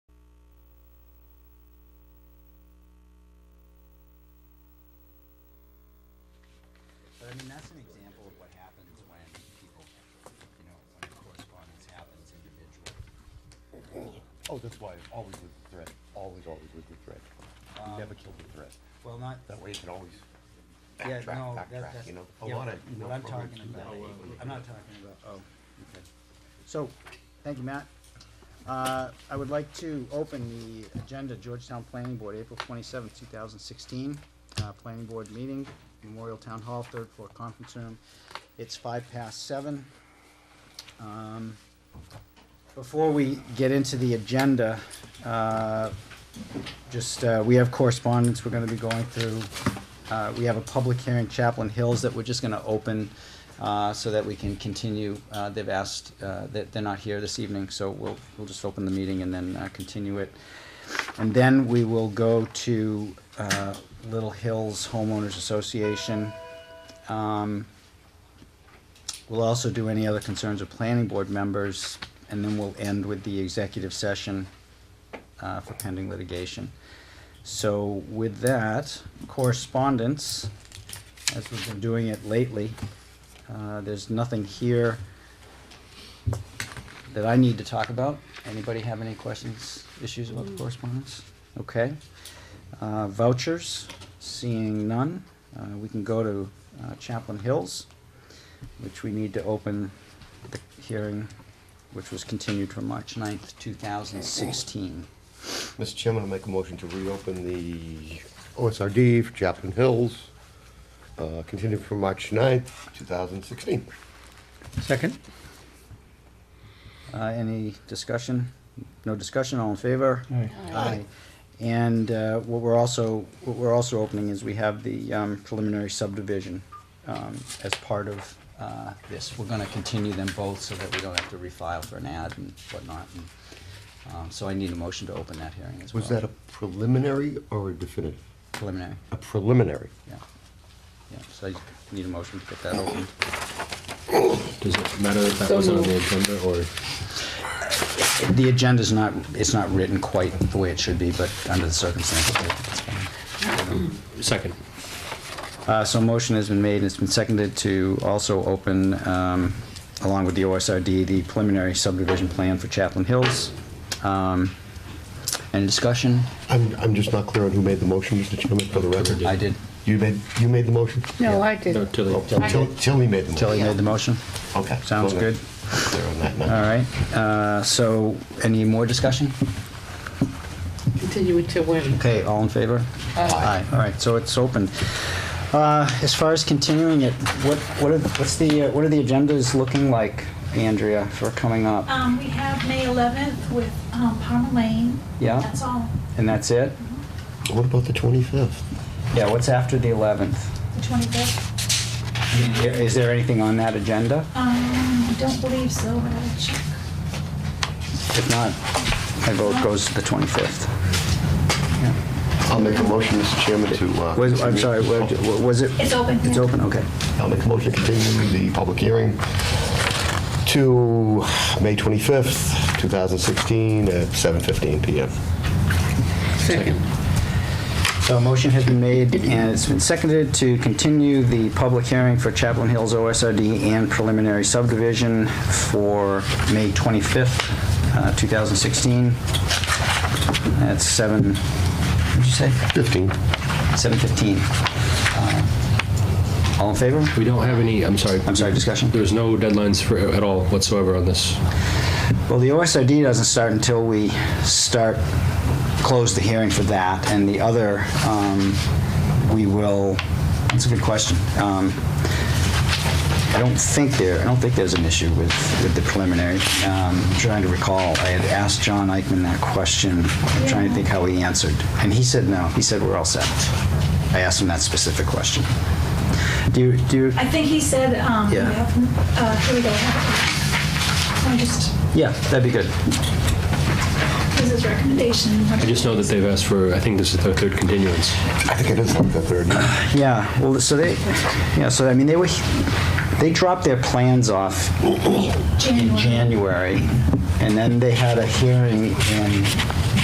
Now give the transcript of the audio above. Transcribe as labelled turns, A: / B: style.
A: Oh, that's why, always with the thread, always, always with the thread. You never kill the thread.
B: Well, not,
A: That way you can always
B: yeah,
A: backtrack,
B: no, that,
A: backtrack,
B: that's.
A: you know? A
B: yeah,
A: lot of
B: what
A: email
B: I'm
A: programs
B: talking
A: do that.
B: about. I'm not talking about, oh, okay.
C: So, thank you, Matt. Uh, I would like to open the agenda, Georgetown Planning Board, April twenty-seventh, two thousand sixteen. Uh, Planning Board meeting, Memorial Town Hall, third floor conference room. It's five past seven. Um, Before we get into the agenda, uh, just, uh, we have correspondence we're gonna be going through. Uh, we have a public hearing, Chaplain Hills, that we're just gonna open, uh, so that we can continue. Uh, they've asked, uh, that they're not here this evening, so we'll, we'll just open the meeting and then, uh, continue it. And then we will go to, uh, Little Hills Homeowners Association. Um, We'll also do any other concerns of planning board members, and then we'll end with the executive session uh, for pending litigation. So with that, correspondence, as we've been doing it lately, uh, there's nothing here that I need to talk about. Anybody have any questions, issues about the correspondence? Okay. Uh, Vouchers, seeing none, uh, we can go to uh, Chaplain Hills which we need to open the hearing, which was continued from March 9th, two thousand sixteen.
A: Mr. Chairman, I'll make a motion to reopen the OSRD for Chaplain Hills, uh, continued from March 9th, two thousand sixteen.
D: Second?
C: Uh, any discussion? No discussion, all in favor?
D: Aye.
C: Aye. And, uh, what we're also, what we're also opening is we have the, um, preliminary subdivision, um, as part of, uh, this. We're gonna continue them both so that we don't have to refile for an ad and whatnot. and, Um, so I need a motion to open that hearing as well.
A: Was that a preliminary or a definitive?
C: Preliminary.
A: A preliminary.
C: Yeah, yeah, so I need a motion to get that open.
E: Does it matter if that
F: So
E: was on the
F: moved.
E: agenda or?
C: The agenda's not, it's not written quite the way it should be, but under the circumstances, I think it's fine.
E: Second.
C: Uh, so a motion has been made, and it's been seconded to also open, um, along with the OSRD, the preliminary subdivision plan for Chaplain Hills. Um, Any discussion?
A: I'm, I'm just not clear on who made the motion, Mr. Chairman, for the record.
C: I did.
A: You made, you made the motion?
F: No, I
E: No,
F: did.
E: Tilly.
A: Oh, Till- Tilly made the motion.
C: Tilly made the motion?
A: Okay.
C: Sounds good.
A: Clear on that
C: All
A: now.
C: right, uh, so any more discussion?
F: Continue it to when?
C: Okay, all in favor?
A: Aye.
C: All right, so it's open. Uh, As far as continuing it, what, what are, what's the, uh, what are the agendas looking like, Andrea, for coming up?
G: Um, we have May 11th with, um, Palmer Lane.
C: Yeah.
G: That's all.
C: And that's it?
G: Mm-hmm.
A: What about the 25th?
C: Yeah, what's after the 11th?
G: The 25th.
C: Is there anything on that agenda?
G: Um, I don't believe so, but I'll check.
C: If not, my vote goes to the 25th.
A: I'll make a motion, Mr. Chairman, to... uh,
C: Was, I'm
A: continue-
C: sorry, wa- wa- was it?
G: It's open.
C: It's open, okay.
A: I'll make a motion to continue the public hearing to May 25th, 2016, at 7:15 PM.
F: Second.
C: So a motion has been made and it's been seconded to continue the public hearing for Chaplain Hills OSRD and preliminary subdivision for May 25th, uh, 2016. At 7, what'd you say?
A: 15.
C: 7:15. Uh, All in favor?
E: We don't have any, I'm sorry.
C: I'm sorry, discussion?
E: There's no deadlines for, at all whatsoever on this.
C: Well, the OSRD doesn't start until we start, close the hearing for that, and the other, um, we will, that's a good question. Um, I don't think there, I don't think there's an issue with, with the preliminary. Um, I'm trying to recall, I had asked John Eichman that question, I'm trying to think how he answered, and he said no, he said we're all set. I asked him that specific question. Do you, do you,
G: I think he said, um, we
C: Yeah.
G: have, uh, here we go. I just,
C: yeah, that'd be good.
G: this is recommendation.
E: I just know that they've asked for, I think this is their third continuance.
A: I think it is like the 30th.
C: Yeah, well, so they, yeah, so I mean, they were, they dropped their plans off in
G: January.
C: January, and then they had a hearing in